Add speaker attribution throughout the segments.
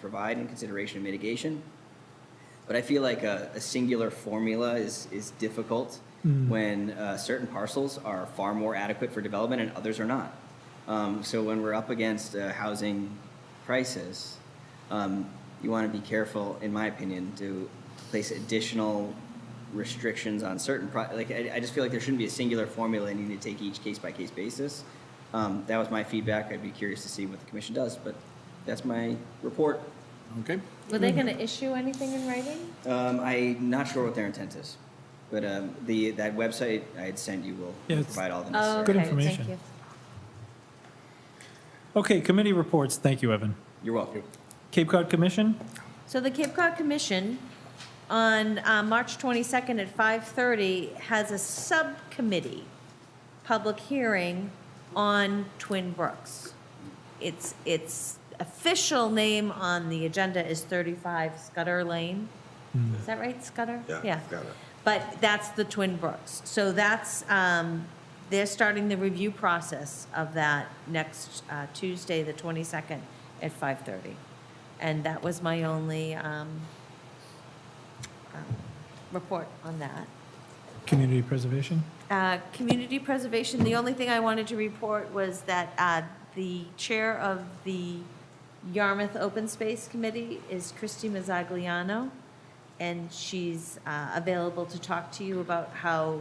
Speaker 1: provide in consideration of mitigation. But I feel like a, a singular formula is, is difficult when uh, certain parcels are far more adequate for development and others are not. Um, so when we're up against a housing crisis, um, you want to be careful, in my opinion, to place additional restrictions on certain pro- like I, I just feel like there shouldn't be a singular formula and you need to take each case by case basis. Um, that was my feedback. I'd be curious to see what the commission does, but that's my report.
Speaker 2: Okay,
Speaker 3: Were
Speaker 4: Mm.
Speaker 3: they gonna issue anything in writing?
Speaker 1: Um, I'm not sure what their intent is, but um, the that website I had sent you will
Speaker 4: Yeah, it's-
Speaker 1: provide all the
Speaker 3: Oh,
Speaker 1: necessary.
Speaker 4: Good
Speaker 3: okay,
Speaker 4: information.
Speaker 3: thank you.
Speaker 4: Okay, committee reports. Thank you, Evan.
Speaker 1: You're welcome.
Speaker 4: Cape Cod Commission?
Speaker 3: So the Cape Cod Commission on uh, March 22nd at 5:30 has a subcommittee public hearing on Twin Brooks. Its, its official name on the agenda is 35 Scudder Lane.
Speaker 4: Mm.
Speaker 3: Is that right, Scudder?
Speaker 5: Yeah, Scudder.
Speaker 3: But that's the Twin Brooks. So that's, um, they're starting the review process of that next uh, Tuesday, the 22nd, at 5:30. And that was my only um, um, report on that.
Speaker 4: Community Preservation?
Speaker 3: Uh, Community preservation, the only thing I wanted to report was that uh, the chair of the Yarmouth Open Space Committee is Christy Mazzagliano, and she's uh, available to talk to you about how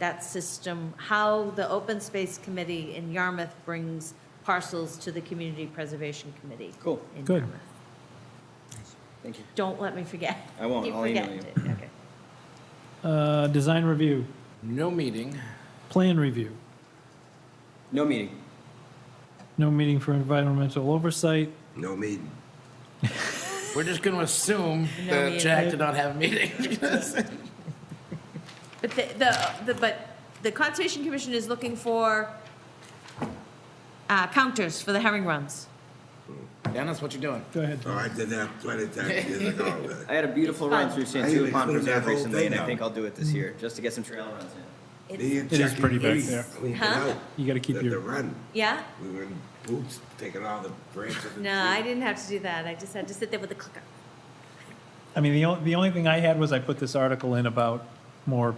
Speaker 3: that system, how the Open Space Committee in Yarmouth brings parcels to the Community Preservation Committee.
Speaker 1: Cool.
Speaker 3: in
Speaker 4: Good.
Speaker 3: Yarmouth.
Speaker 1: Thank you.
Speaker 3: Don't let me forget.
Speaker 1: I won't.
Speaker 3: Keep
Speaker 1: I'll email you.
Speaker 3: forgetting it. Okay.
Speaker 4: Uh, Design Review,
Speaker 2: no meeting.
Speaker 4: Plan Review,
Speaker 1: No meeting.
Speaker 4: no meeting for environmental oversight.
Speaker 5: No meeting.
Speaker 2: We're just going to assume
Speaker 3: No
Speaker 2: that
Speaker 3: meeting.
Speaker 2: Jack did not have a meeting.
Speaker 3: But the, the, the, but the Conservation Commission is looking for, uh, counters for the herring runs.
Speaker 2: Dennis, what you doing?
Speaker 4: Go ahead.
Speaker 5: Oh, I did that plenty of times years ago.
Speaker 1: I had a beautiful
Speaker 3: It's fun.
Speaker 1: run through
Speaker 5: I think
Speaker 1: Santua
Speaker 5: they
Speaker 1: Pond
Speaker 5: cleaned that
Speaker 1: Preserve
Speaker 5: whole
Speaker 1: recently, and
Speaker 5: thing Mm-hmm.
Speaker 1: I
Speaker 5: out.
Speaker 1: think I'll do it this year just to get some trail runs in.
Speaker 3: It's,
Speaker 4: It
Speaker 5: E.
Speaker 4: is pretty back there.
Speaker 3: Huh?
Speaker 4: You gotta keep
Speaker 5: The
Speaker 4: your-
Speaker 5: run,
Speaker 3: yeah?
Speaker 5: we were in boots, taking all the branches and.
Speaker 3: No, I didn't have to do that. I just had to sit there with the clicker.
Speaker 4: I mean, the only, the only thing I had was I put this article in about more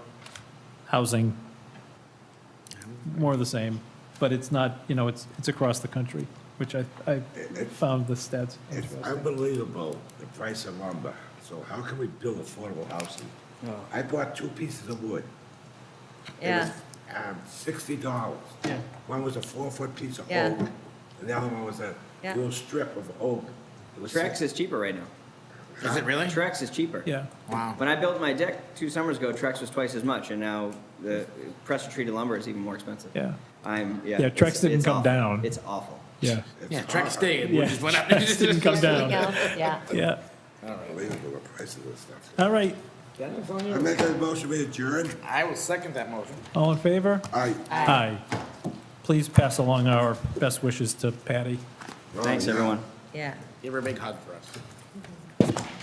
Speaker 4: housing, more of the same, but it's not, you know, it's, it's across the country, which I, I found the stats
Speaker 5: It's
Speaker 4: interesting.
Speaker 5: unbelievable, the price of lumber. So how can we build affordable housing?
Speaker 4: Oh.
Speaker 5: I bought two pieces of wood. It
Speaker 3: Yeah,
Speaker 5: was, Um, sixty dollars.
Speaker 4: Yeah.
Speaker 5: One was a four-foot piece of oak,
Speaker 3: Yeah.
Speaker 5: and the other one was a
Speaker 3: Yeah.
Speaker 5: little strip of oak. It was
Speaker 1: Trex
Speaker 5: six-
Speaker 1: is cheaper right now.
Speaker 2: Is it really?
Speaker 1: Trex is cheaper.
Speaker 4: Yeah,
Speaker 2: Wow.
Speaker 1: When I built my deck two summers ago, Trex was twice as much, and now the pressure treated lumber is even more expensive.
Speaker 4: yeah,
Speaker 1: I'm yeah.
Speaker 4: Yeah, Trex
Speaker 1: it's-
Speaker 4: didn't
Speaker 1: it's
Speaker 4: come
Speaker 1: awful.
Speaker 4: down.
Speaker 1: It's awful.
Speaker 4: yeah,
Speaker 5: it's
Speaker 2: Yeah, Trek
Speaker 5: hard.
Speaker 2: stayed,
Speaker 4: Yeah.
Speaker 2: which is what I.
Speaker 4: Just didn't come down,
Speaker 3: yeah.
Speaker 4: yeah.
Speaker 5: Unbelievable, the price of this stuff.
Speaker 4: All right,
Speaker 5: I make a motion, we adjourn.
Speaker 2: I will second that motion.
Speaker 4: all in favor?
Speaker 5: Aye.
Speaker 4: Aye. Please pass along our best wishes to Patty.
Speaker 1: Thanks, everyone.
Speaker 3: Yeah.
Speaker 2: Give her a big hug for us.